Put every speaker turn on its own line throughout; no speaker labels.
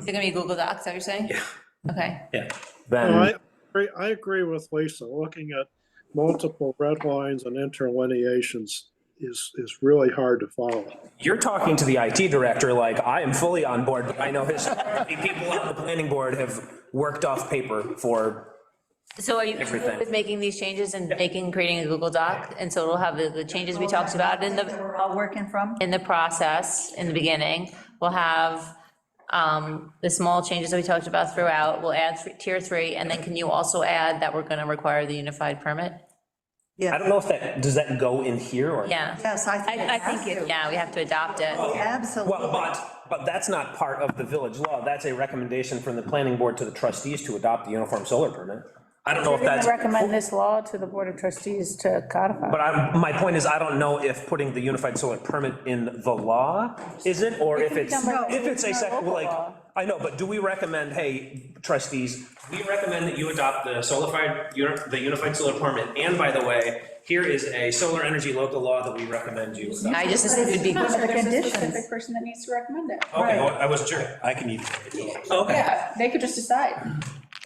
Is it gonna be Google Docs, are you saying?
Yeah.
Okay,
Well, I
Then,
agree, I agree with Lisa. Looking at multiple red lines and interlineations is, is really hard to follow.
you're talking to the IT director like, I am fully on board, but I know historically, people on the planning board have worked off paper for,
so are you comfortable
Everything.
with making these changes and making, creating a Google Doc? And so it'll have the, the changes we talked about in
that
the,
we're all working from.
in the process, in the beginning. We'll have um, the small changes that we talked about throughout, we'll add three- tier three, and then can you also add that we're gonna require the unified permit?
I don't know if that, does that go in here or?
Yeah.
Yes, I think
I- I think
it
it-
has to.
Yeah, we have to adopt it.
Oh. Absolutely.
Well, but, but that's not part of the village law. That's a recommendation from the planning board to the trustees to adopt the uniform solar permit. I don't know if that's,
Recommend this law to the Board of Trustees to codify.
but I, my point is, I don't know if putting the unified solar permit in the law isn't, or if it's,
done by-
if it's a sec,
local
like,
law.
I know, but do we recommend, hey, trustees, we recommend that you adopt the solidified, uni- the unified solar permit, and by the way, here is a solar energy local law that we recommend you adopt.
I just, it would be,
Those are the
There's a
conditions.
specific person that needs to recommend it.
Okay, well, I wasn't sure.
I can even.
Okay.
Yeah, they could just decide.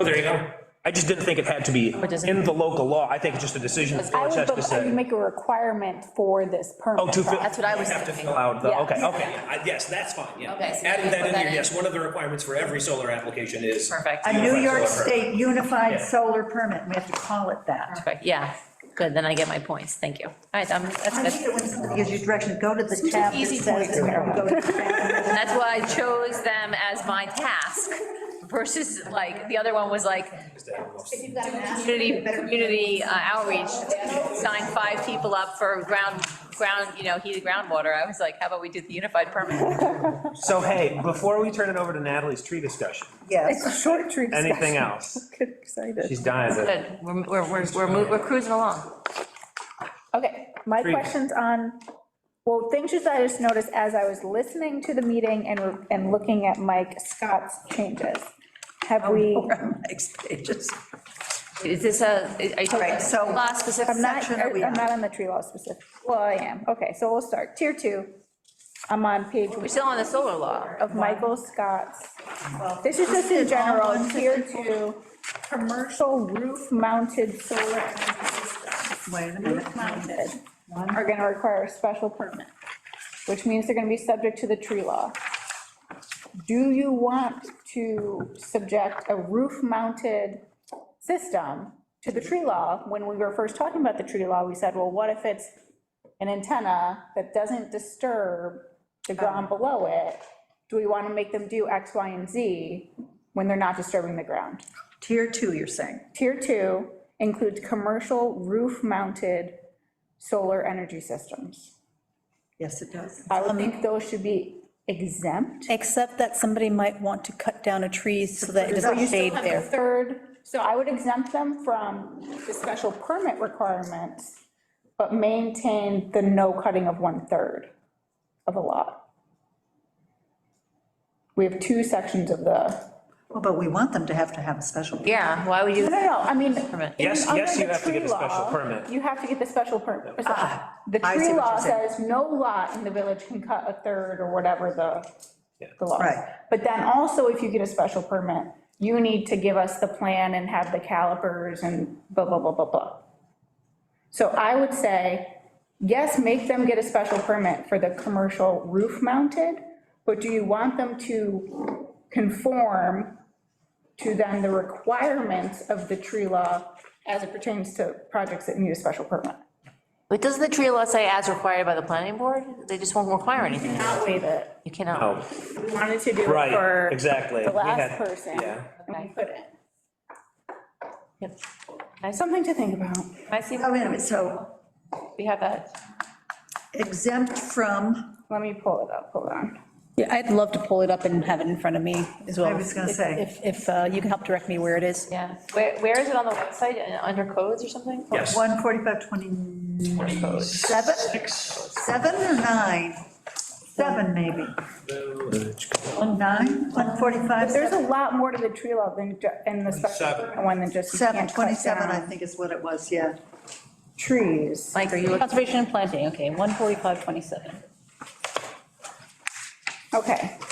Oh, there you go. I just didn't think it had to be
doesn't-
in the local law. I think it's just a decision the
I
village
would,
has to
but I would
say.
make a requirement for this permit.
Oh, to fill.
that's what I was
Have to
thinking.
fill out the,
Yeah.
okay, okay, yeah, I- yes, that's fine, yeah.
Okay, so
Adding
you
that
put
in
that
here,
in.
yes, one of the requirements for every solar application is.
Perfect.
A New York
Solar permit.
State Unified
Yeah.
Solar Permit, we have to call it that.
okay, yeah, good, then I get my points, thank you. All right, I'm-
I
that's
think
good.
it when somebody gives you direction, go to the tab that
easy
says. go to the tab.
And that's why I chose them as my task versus like, the other one was like, community, community uh, outreach, sign five people up for ground, ground, you know, heated groundwater. I was like, how about we do the unified permit?
So hey, before we turn it over to Natalie's tree discussion,
Yes,
a short tree
anything else? She's dying to.
Good, we're, we're, we're- we're, mo- we're cruising along.
Okay, my
Three.
question's on, well, things that I just noticed as I was listening to the meeting and, and looking at Mike Scott's changes.
Oh,
Have we,
next pages.
Is this a, are you talking
Right, so-
law specific
I'm not, er,
section are we on?
I'm not on the tree law specific, well, I am, okay, so we'll start, tier two. I'm on page
We're still on the solar law.
of Michael Scott's. This is just in general, tier two, commercial roof-mounted solar energy systems.
Wait a minute.
Roof-mounted are gonna require a special permit, which means they're gonna be subject to the tree law. Do you want to subject a roof-mounted system to the tree law? When we were first talking about the tree law, we said, well, what if it's an antenna that doesn't disturb the ground below it? Do we want to make them do X, Y, and Z when they're not disturbing the ground?
Tier two, you're saying.
Tier two includes commercial roof-mounted solar energy systems.
Yes, it does.
I would think those should be exempt.
Except that somebody might want to cut down a tree so that it doesn't shade
The
there.
Third, so I would exempt them from the special permit requirements, but maintain the no cutting of one-third of a lot. We have two sections of the,
Well, But we want them to have to have a special.
Yeah, why would
no, no,
you?
no, I mean.
Permit.
in-
Yes, yes,
under
you
the
have to get
tree
a special
law,
permit. Uh,
You have to get the special permit. The
I see
tree
what
law
you're saying.
says no lot in the village can cut a third or whatever the, the law.
Right.
But then also, if you get a special permit, you need to give us the plan and have the calipers and blah, blah, blah, blah, blah. So I would say, yes, make them get a special permit for the commercial roof mounted, but do you want them to conform to then the requirements of the tree law as it pertains to projects that need a special permit?
But doesn't the tree law say as required by the planning board? They just won't require anything.
Not waive it.
You cannot.
Oh,
We wanted to do it
right,
for
exactly.
the
We had-
last person.
yeah.
And we couldn't.
Yep.
Something to think about.
I see,
Oh, wait a minute, so
we have that.
exempt from,
Let me pull it up, hold on.
Yeah, I'd love to pull it up and have it in front of me as well.
I was gonna
If-
say.
If, if uh, you can help direct me where it is.
Yeah, where, where is it on the website, Uh, under codes or something?
Yes.
145, 27? Seven or nine? Seven, maybe. Nine, 145,
There's
seven,
a lot more to the tree law than, ju- in the special permit one than just you
seven,
can't cut
27, I
down
think is what it was, yeah.
trees.
Mike, are you looking?
Conservation and planting, okay, 14527.
Okay,